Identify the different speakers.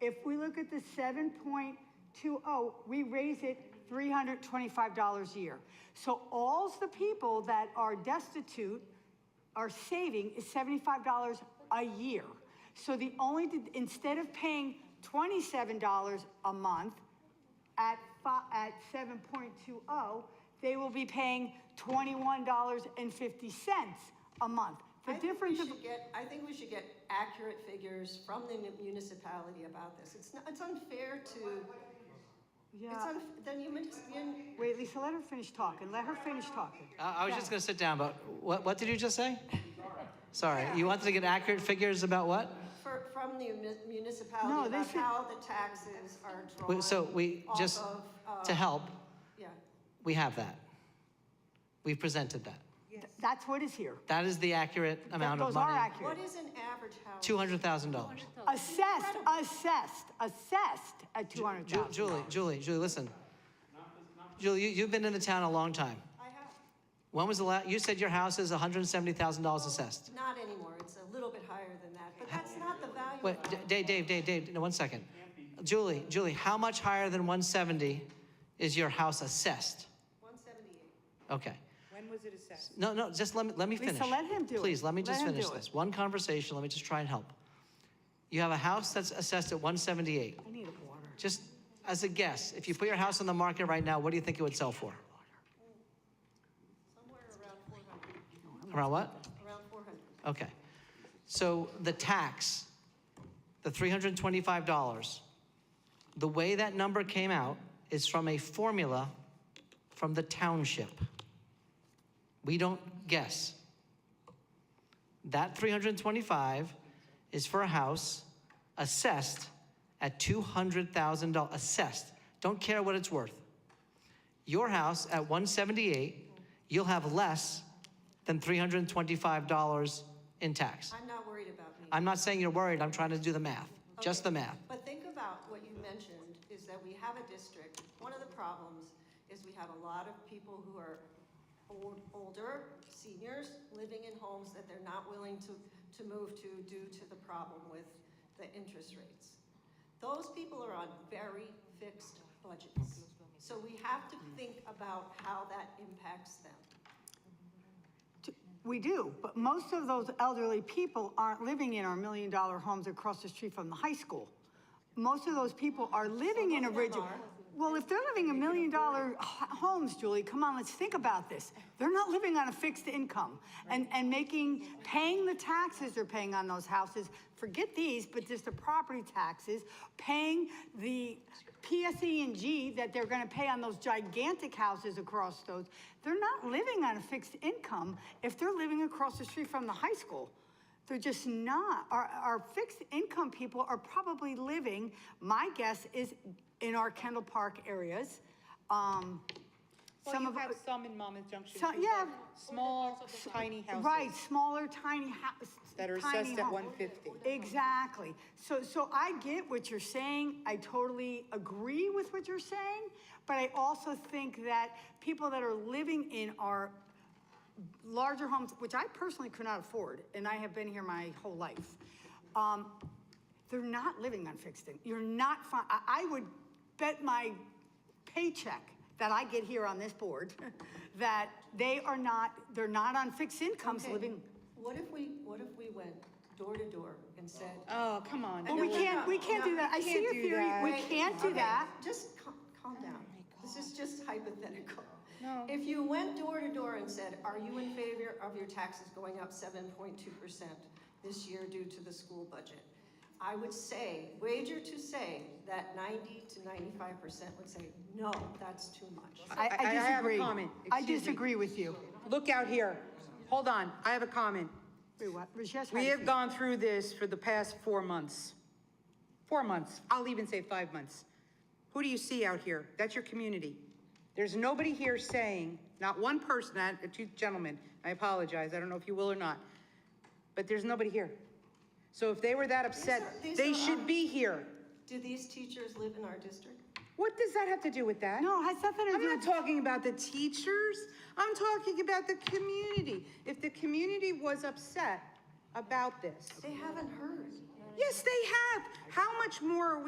Speaker 1: If we look at the seven point two oh, we raise it three hundred twenty-five dollars a year. So all's the people that are destitute are saving is seventy-five dollars a year. So the only, instead of paying twenty-seven dollars a month at fi, at seven point two oh, they will be paying twenty-one dollars and fifty cents a month. The
Speaker 2: I think we
Speaker 1: difference of.
Speaker 2: should get- I think we should get accurate figures from the municipality about this. It's not, it's unfair to, it's
Speaker 1: Yeah,
Speaker 2: unf then you miss, you-
Speaker 1: wait, Lisa, let her finish talking, let her finish talking.
Speaker 3: Uh, I was just going to sit down, but what, what did you just say? Sorry, you wanted to get accurate figures about what?
Speaker 2: for, from the mu-
Speaker 1: No,
Speaker 2: municipality
Speaker 1: they
Speaker 2: about
Speaker 1: should-
Speaker 2: how the taxes are
Speaker 3: We-
Speaker 2: drawn.
Speaker 3: So we,
Speaker 2: off
Speaker 3: just
Speaker 2: of, uh,
Speaker 3: to help,
Speaker 2: Yeah,
Speaker 3: we have that. We've presented that.
Speaker 1: Th- That's what is here.
Speaker 3: That is the accurate amount of
Speaker 1: Those are
Speaker 3: money.
Speaker 2: what
Speaker 1: accurate.
Speaker 2: is an average house?
Speaker 3: $200,000.
Speaker 1: Assessed, assessed, assessed at two hundred
Speaker 3: Ju-
Speaker 1: thousand.
Speaker 3: Julie, Julie, Julie, listen. Julie, you, you've been in the town a long time.
Speaker 2: I have,
Speaker 3: When was the last, you said your house is $170,000 assessed.
Speaker 2: not anymore, it's a little bit higher than that, but that's not the value.
Speaker 3: Wait,
Speaker 2: of
Speaker 3: D- Dave, Dave, Dave, Dave, no, one second. Julie, Julie, how much higher than 170 is your house assessed?
Speaker 2: One seventy-eight.
Speaker 3: Okay.
Speaker 4: When was it assessed?
Speaker 3: No, no, just let me, let me
Speaker 1: Lisa,
Speaker 3: finish.
Speaker 1: let him do it.
Speaker 3: Please, let me
Speaker 1: Let
Speaker 3: just
Speaker 1: him
Speaker 3: finish
Speaker 1: do it.
Speaker 3: this. One conversation, let me just try and help. You have a house that's assessed at 178.
Speaker 1: I need a water.
Speaker 3: Just as a guess, if you put your house on the market right now, what do you think it would sell for?
Speaker 2: somewhere around four hundred,
Speaker 3: Around what?
Speaker 2: around four hundred.
Speaker 3: Okay. So the tax, the $325, the way that number came out is from a formula from the township. We don't guess. That 325 is for a house assessed at $200,000, assessed. Don't care what it's worth. Your house at 178, you'll have less than $325 in tax.
Speaker 2: I'm not worried about me.
Speaker 3: I'm not saying you're worried, I'm trying to do the math, just the math.
Speaker 2: But think about what you mentioned, is that we have a district, one of the problems is we have a lot of people who are old, older, seniors, living in homes that they're not willing to, to move to due to the problem with the interest rates. Those people are on very fixed budgets, so we have to think about how that impacts them.
Speaker 1: We do, but most of those elderly people aren't living in our million-dollar homes across the street from the high school. Most of those people are living in
Speaker 2: Some of them
Speaker 1: original.
Speaker 2: are.
Speaker 1: Well, if they're living in million-dollar h- homes, Julie, come on, let's think about this. They're not living on a fixed income and, and making, paying the taxes they're paying on those houses. Forget these, but just the property taxes, paying the PSE and G that they're gonna pay on those gigantic houses across those. They're not living on a fixed income if they're living across the street from the high school. They're just not. Our, our fixed income people are probably living, my guess is in our Kendall Park areas. Um,
Speaker 4: Well,
Speaker 1: some
Speaker 4: you
Speaker 1: of,
Speaker 4: have some in Monmouth Junction.
Speaker 1: So-
Speaker 4: too,
Speaker 1: yeah.
Speaker 4: but Small, tiny houses.
Speaker 1: right, smaller tiny houses.
Speaker 4: That are
Speaker 1: tiny
Speaker 4: assessed at
Speaker 1: home.
Speaker 4: 150.
Speaker 1: Exactly. So, so I get what you're saying. I totally agree with what you're saying. But I also think that people that are living in our larger homes, which I personally could not afford, and I have been here my whole life, um, they're not living on fixed income. You're not, fi- I, I would bet my paycheck that I get here on this board that they are not, they're not on fixed incomes
Speaker 2: Okay,
Speaker 1: living.
Speaker 2: What if we, what if we went door to door and said,
Speaker 4: Oh, come on.
Speaker 1: Well, we
Speaker 2: no,
Speaker 1: can't,
Speaker 2: no,
Speaker 1: we can't
Speaker 2: no,
Speaker 1: do that. I
Speaker 4: we
Speaker 1: see
Speaker 4: can't
Speaker 1: your
Speaker 4: do
Speaker 1: theory.
Speaker 4: that.
Speaker 1: We
Speaker 2: Wait,
Speaker 1: can't do
Speaker 2: okay,
Speaker 1: that.
Speaker 2: Just cal- calm down. This is just hypothetical.
Speaker 4: No.
Speaker 2: If you went door to door and said, are you in favor of your taxes going up seven point two percent this year due to the school budget? I would say, wager to say that ninety to ninety-five percent would say, no, that's too much.
Speaker 1: I,
Speaker 4: I- I
Speaker 1: I
Speaker 4: have a
Speaker 1: disagree.
Speaker 4: comment.
Speaker 1: I
Speaker 4: Excuse me.
Speaker 1: disagree with you.
Speaker 4: Look out here. Hold on, I have a comment.
Speaker 1: Wait, what? Rajesh, how
Speaker 4: We
Speaker 1: you
Speaker 4: have
Speaker 1: feel?
Speaker 4: gone through this for the past four months. Four months, I'll even say five months. Who do you see out here? That's your community. There's nobody here saying, not one person, not two gentlemen, I apologize, I don't know if you will or not, but there's nobody here. So if they were that upset,
Speaker 2: are- these
Speaker 4: they
Speaker 2: are
Speaker 4: should
Speaker 2: our-
Speaker 4: be here.
Speaker 2: Do these teachers live in our district?
Speaker 4: What does that have to do with that?
Speaker 1: No, it has nothing to
Speaker 4: I'm
Speaker 1: do
Speaker 4: not
Speaker 1: with-
Speaker 4: talking about the teachers. I'm talking about the community. If the community was upset about this.
Speaker 2: They haven't heard.
Speaker 4: Yes, they have. How much more are we?